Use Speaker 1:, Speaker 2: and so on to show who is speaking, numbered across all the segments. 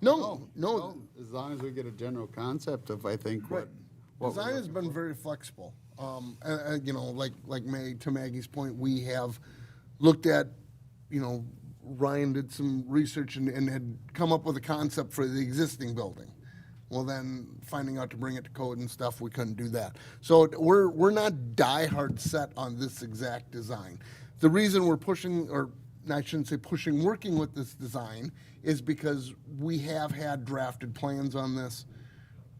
Speaker 1: No, no,
Speaker 2: No, As long as we get a general concept of, I think, what. what we're
Speaker 1: Design has
Speaker 2: looking
Speaker 1: been
Speaker 2: for.
Speaker 1: very flexible. Um, and, and, you know, like, like Maggie, to Maggie's point, we have looked at, you know, Ryan did some research and, and had come up with a concept for the existing building. Well, then finding out to bring it to code and stuff, we couldn't do that. So we're, we're not diehard set on this exact design. The reason we're pushing, or I shouldn't say pushing, working with this design is because we have had drafted plans on this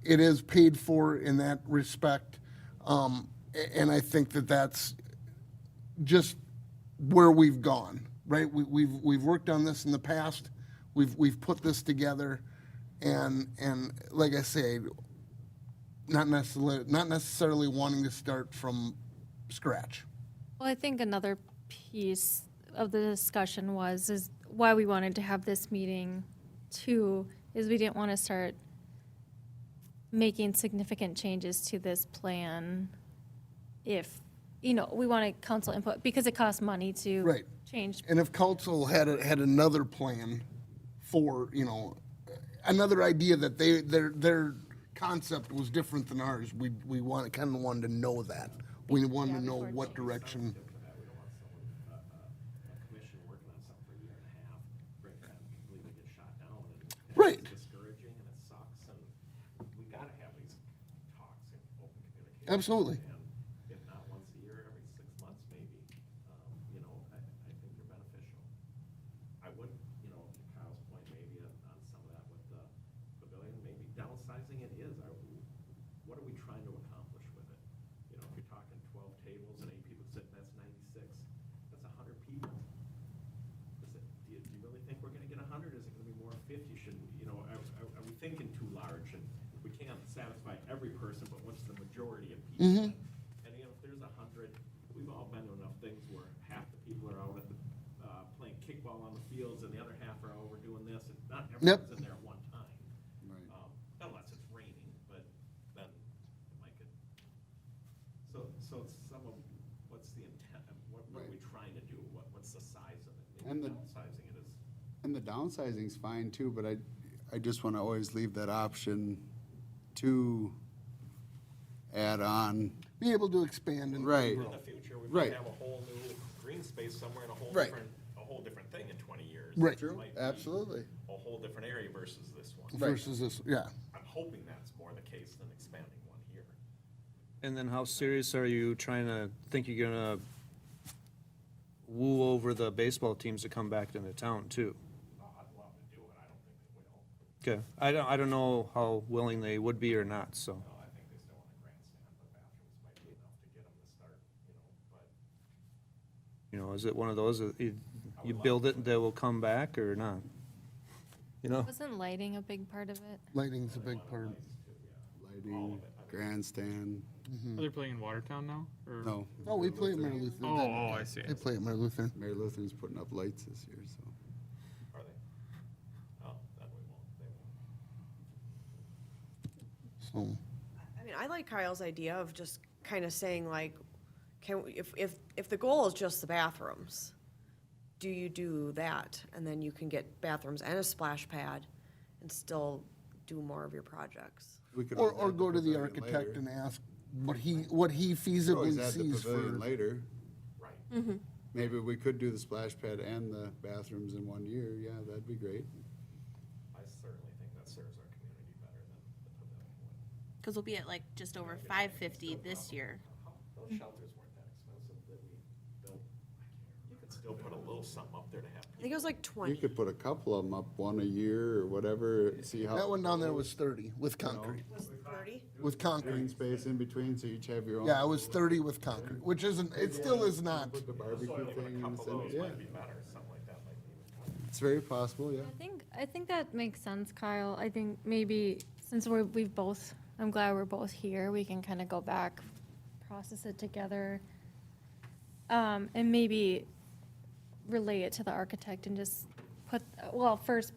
Speaker 1: it is paid for in that respect. Um, a- and I think that that's just where we've gone, right? We, we've, we've worked on this in the past. We've, we've put this together. And, and like I say, not necessarily, not necessarily wanting to start from scratch.
Speaker 3: Well, I think another piece of the discussion was, is why we wanted to have this meeting too, is we didn't want to start making significant changes to this plan if, you know, we wanted council input, because it costs money to
Speaker 1: Right.
Speaker 3: change.
Speaker 1: And if council had, a- had another plan for, you know, another idea that they, their, their concept was different than ours, we, we want, kind of wanted to know that. We wanted to know what direction,
Speaker 4: commission working on something for a year and a half, break that, completely get shot down. and it's
Speaker 1: Right.
Speaker 4: Discouraging and it sucks and we gotta have these talks and open communication.
Speaker 1: Absolutely.
Speaker 4: And if not once a year, every six months maybe, um, you know, I, I think they're beneficial. I would, you know, to Kyle's point maybe on, on some of that with the pavilion, maybe downsizing it is, are, we- what are we trying to accomplish with it? You know, if you're talking twelve tables and eight people sitting, that's ninety-six, that's a hundred people. Is it, do you, do you really think we're gonna get a hundred? Is it gonna be more fifty? Should, we- you know, are, are, are we thinking too large? And we can't satisfy every person, but what's the majority of people? And you know, if there's a hundred, we've all been to enough things where half the people are out at the, uh, playing kickball on the fields and the other half are over doing this and not everyone's in there at one time.
Speaker 2: Right.
Speaker 4: Um, Unless it's raining, but then it might get, so, so it's some of, what's the intent, of what, what are we trying to do? What, what's the size of it? Maybe
Speaker 2: And the-
Speaker 4: Downsizing it is.
Speaker 2: And the downsizing's fine too, but I, I just want to always leave that option to add on.
Speaker 1: be able to expand and.
Speaker 2: Right.
Speaker 4: In the future, we
Speaker 2: Right.
Speaker 4: might have a whole new green space somewhere and a whole
Speaker 1: Right.
Speaker 4: different, a whole different thing in twenty years.
Speaker 1: Right.
Speaker 4: It
Speaker 1: True,
Speaker 4: might be
Speaker 2: absolutely.
Speaker 4: A whole different area versus this one.
Speaker 1: Versus this, yeah.
Speaker 4: I'm hoping that's more the case than expanding one here.
Speaker 5: And then how serious are you trying to, think you're gonna woo over the baseball teams to come back into town too?
Speaker 4: Oh, I'd love to do it, I don't think they will.
Speaker 5: Okay, I don't, I don't know how willing they would be or not, so.
Speaker 4: No, I think they still want a grandstand, but bathrooms might be enough to get them to start, you know, but
Speaker 5: You know, is it one of those, that you, you build it and they will come back or not? You know?
Speaker 3: Wasn't lighting a big part of it?
Speaker 1: Lighting's a big part.
Speaker 2: Lighting, grandstand,
Speaker 6: Are they playing in Watertown now? Or?
Speaker 2: no.
Speaker 1: Oh, we play at Mary
Speaker 6: Oh,
Speaker 1: Lutheran.
Speaker 6: oh, I see.
Speaker 1: They play at Mary Lutheran.
Speaker 2: Mary Lutheran's putting up lights this year, so.
Speaker 4: are they? Oh, that we won't, they won't.
Speaker 1: So,
Speaker 7: I mean, I like Kyle's idea of just kind of saying like, can, we- if, if, if the goal is just the bathrooms, do you do that? And then you can get bathrooms and a splash pad and still do more of your projects.
Speaker 2: we could
Speaker 1: or,
Speaker 2: always
Speaker 1: or
Speaker 2: add
Speaker 1: go to the
Speaker 2: pavilion later.
Speaker 1: architect and ask what he, what he
Speaker 2: Could Always
Speaker 1: feasibly
Speaker 2: add the
Speaker 1: sees for.
Speaker 2: pavilion later.
Speaker 4: Right.
Speaker 2: Maybe we could do the splash pad and the bathrooms in one year, yeah, that'd be great.
Speaker 4: I certainly think that serves our community better than the pavilion would.
Speaker 8: Because we'll be at like just over five fifty this year.
Speaker 4: How- Those shelters weren't that expensive that we built. You could still put a little something up there to have.
Speaker 7: I think it was like
Speaker 2: You
Speaker 7: twenty.
Speaker 2: could put a couple of them up, one a year or whatever, see how.
Speaker 1: That one down there was thirty with concrete,
Speaker 7: Was it thirty?
Speaker 1: with
Speaker 2: Green
Speaker 1: concrete.
Speaker 2: space in between, so each have your own.
Speaker 1: Yeah, it was thirty with concrete, which isn't, it still is not.
Speaker 2: Put the barbecue
Speaker 4: Soil
Speaker 2: thing
Speaker 4: and a
Speaker 2: in the
Speaker 4: couple of
Speaker 2: center,
Speaker 4: those
Speaker 2: yeah,
Speaker 4: might be better, something like that might be even better.
Speaker 2: it's very possible, yeah.
Speaker 3: I think, I think that makes sense, Kyle. I think maybe since we're, we've both, I'm glad we're both here, we can kind of go back, process it together. Um, and maybe relay it to the architect and just put, well, first